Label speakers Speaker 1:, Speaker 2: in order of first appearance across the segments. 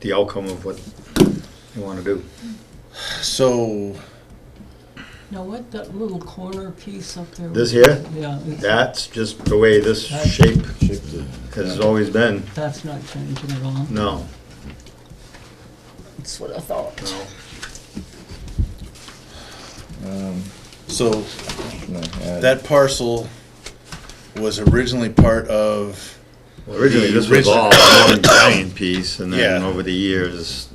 Speaker 1: the outcome of what you want to do.
Speaker 2: So,
Speaker 3: Now, what, that little corner piece up there?
Speaker 1: This here,
Speaker 3: Yeah, it's-
Speaker 1: that's just the way this shape
Speaker 2: shape the,
Speaker 1: has always been.
Speaker 3: that's not changing at all.
Speaker 1: No,
Speaker 3: That's what I thought.
Speaker 1: no.
Speaker 4: Um,
Speaker 2: so
Speaker 4: no, uh,
Speaker 2: that parcel was originally part of,
Speaker 1: Well, Originally, this was all one giant piece, and then
Speaker 2: Yeah.
Speaker 1: over the years,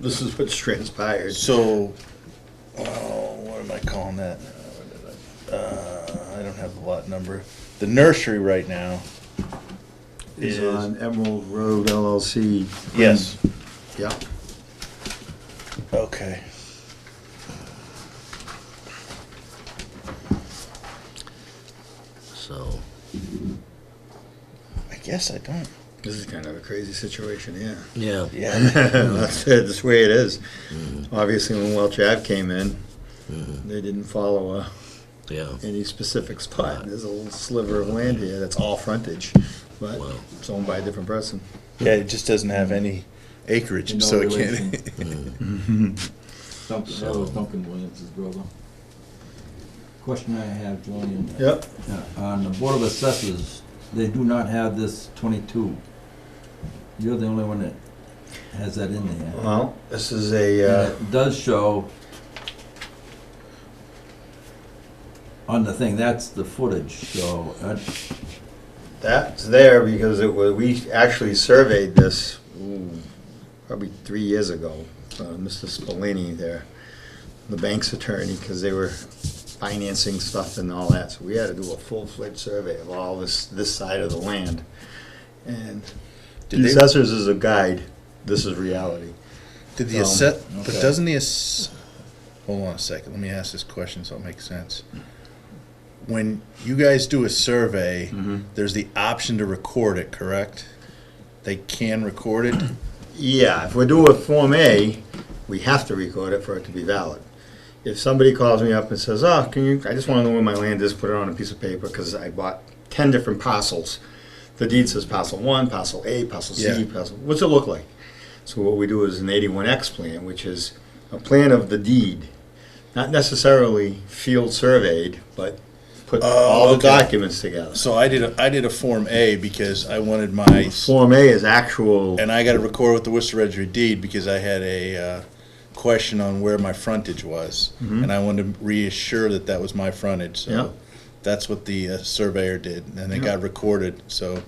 Speaker 1: this is what's transpired.
Speaker 2: so, oh, what am I calling that? Uh, I don't have the lot number. The nursery right now
Speaker 1: Is
Speaker 2: is,
Speaker 1: on Emerald Road LLC.
Speaker 2: yes,
Speaker 1: Yeah,
Speaker 2: okay.
Speaker 1: so,
Speaker 2: I guess I don't,
Speaker 1: this is kind of a crazy situation, yeah.
Speaker 5: Yeah,
Speaker 2: yeah. Mm-hmm.
Speaker 1: That's it, that's the way it is. Obviously, when Welch Ave came in, they didn't follow a
Speaker 5: yeah.
Speaker 1: any specific spot. There's a little sliver of land here that's all frontage, but
Speaker 5: Wow.
Speaker 1: it's owned by a different person.
Speaker 2: Yeah, it just doesn't have any acreage,
Speaker 4: No
Speaker 2: so it
Speaker 4: relation.
Speaker 2: can't. Mm.
Speaker 4: Duncan, that was Duncan Williams' brother. Question I have, Julian.
Speaker 1: Yep.
Speaker 4: Uh, On the Board of Assessors, they do not have this twenty-two. You're the only one that has that in there.
Speaker 1: Well, this is
Speaker 4: And
Speaker 1: a, uh,
Speaker 4: it does show on the thing, that's the footage, so, uh,
Speaker 1: that's there because it was, we actually surveyed this ooh, probably three years ago. Uh, Mr. Spallini there, the bank's attorney, because they were financing stuff and all that. So we had to do a full-fledged survey of all this, this side of the land. And
Speaker 2: Did
Speaker 1: the
Speaker 2: they-
Speaker 1: assessors is a guide. This is reality.
Speaker 2: Did the
Speaker 1: Um,
Speaker 2: asset,
Speaker 4: okay.
Speaker 2: but doesn't the ass, hold on a second, let me ask this question so it makes sense. When you guys do a survey, there's the option to record it, correct? They can record it?
Speaker 1: Yeah, if we do a Form A, we have to record it for it to be valid. If somebody calls me up and says, oh, can you, I just wanna know where my land is, put it on a piece of paper, cause I bought ten different parcels. The deed says parcel one, parcel A, parcel C,
Speaker 2: Yeah.
Speaker 1: parcel, what's it look like? So what we do is an eighty-one X plan, which is a plan of the deed, not necessarily field surveyed, but put
Speaker 2: Oh,
Speaker 1: all the
Speaker 2: okay.
Speaker 1: documents together.
Speaker 2: So I did, a I did a Form A because I wanted my,
Speaker 1: Form A is actual,
Speaker 2: and I gotta record with the Worcester Registry deed because I had a, uh, question on where my frontage was. And I wanted to reassure that that was my frontage,
Speaker 1: Mm-hmm. Yeah.
Speaker 2: so that's what the uh, surveyor did, and it got recorded, so.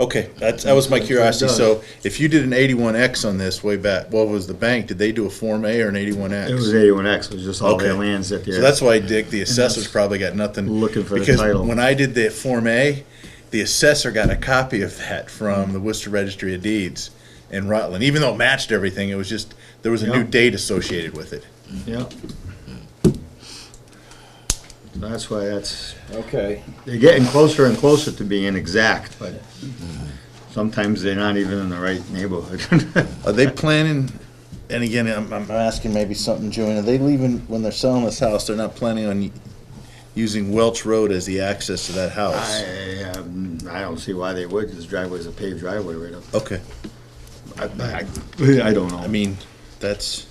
Speaker 2: Okay, that's, that was my curiosity,
Speaker 1: does.
Speaker 2: so if you did an eighty-one X on this way back, what was the bank, did they do a Form A or an eighty-one X?
Speaker 1: it was eighty-one X, it was just all their
Speaker 2: Okay.
Speaker 1: lands that they're.
Speaker 2: So that's why Dick, the assessor's probably got nothing.
Speaker 1: Looking for the
Speaker 2: because
Speaker 1: title.
Speaker 2: When I did the Form A, the assessor got a copy of that from the Worcester Registry of Deeds in Rutland. Even though it matched everything, it was just there was a
Speaker 1: Yeah.
Speaker 2: new date associated with it.
Speaker 1: Yep. That's why that's,
Speaker 4: okay.
Speaker 1: they're getting closer and closer to being exact, but sometimes they're not even in the right neighborhood.
Speaker 2: Are they planning? And again, I'm, I'm asking maybe something, Joanne. Are they leaving when they're selling this house? They're not planning on using Welch Road as the access to that house.
Speaker 1: I, um, I don't see why they would, this driveway's a paved driveway right up.
Speaker 2: okay,
Speaker 1: I, I- I don't
Speaker 2: I
Speaker 1: know.
Speaker 2: mean that's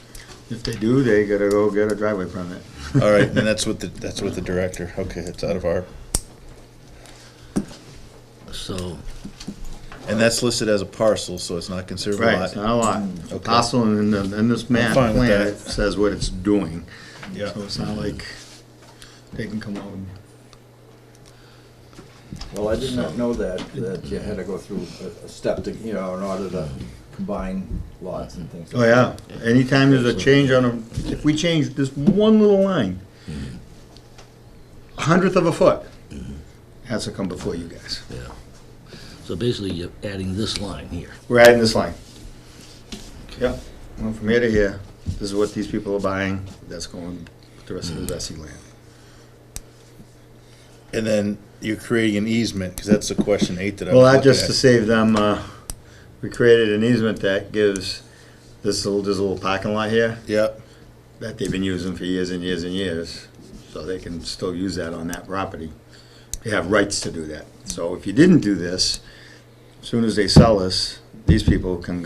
Speaker 1: If they do, they gotta go get a driveway permit.
Speaker 2: all right, and that's what the that's what the director. Okay, it's out of our
Speaker 5: So,
Speaker 2: And that's listed as a parcel, so it's not considered a
Speaker 1: Right, it's
Speaker 2: lot.
Speaker 1: not a lot. A parcel in, the- in this map
Speaker 2: fine with
Speaker 1: plan
Speaker 2: that.
Speaker 1: it says what it's doing.
Speaker 2: Yeah.
Speaker 1: So it's not like they can come out and
Speaker 4: Well, I did not know that, that you had to go through a- a step to, you know, in order to combine lots and things.
Speaker 1: Oh, yeah, anytime there's a change on a, if we change this one little line, a hundredth of a foot, has to come before you guys.
Speaker 5: yeah. So basically, you're adding this line here.
Speaker 1: We're adding this line. Yep, well, from here to here, this is what these people are buying, that's going, with the rest of the Vessi land.
Speaker 2: And then you're creating an easement, because that's the question eight that I was
Speaker 1: Well, that
Speaker 2: looking
Speaker 1: just to
Speaker 2: at.
Speaker 1: save them, uh, we created an easement that gives this little, this little parking lot here,
Speaker 2: Yep,
Speaker 1: that they've been using for years and years and years, so they can still use that on that property. They have rights to do that. So if you didn't do this, as soon as they sell us, these people can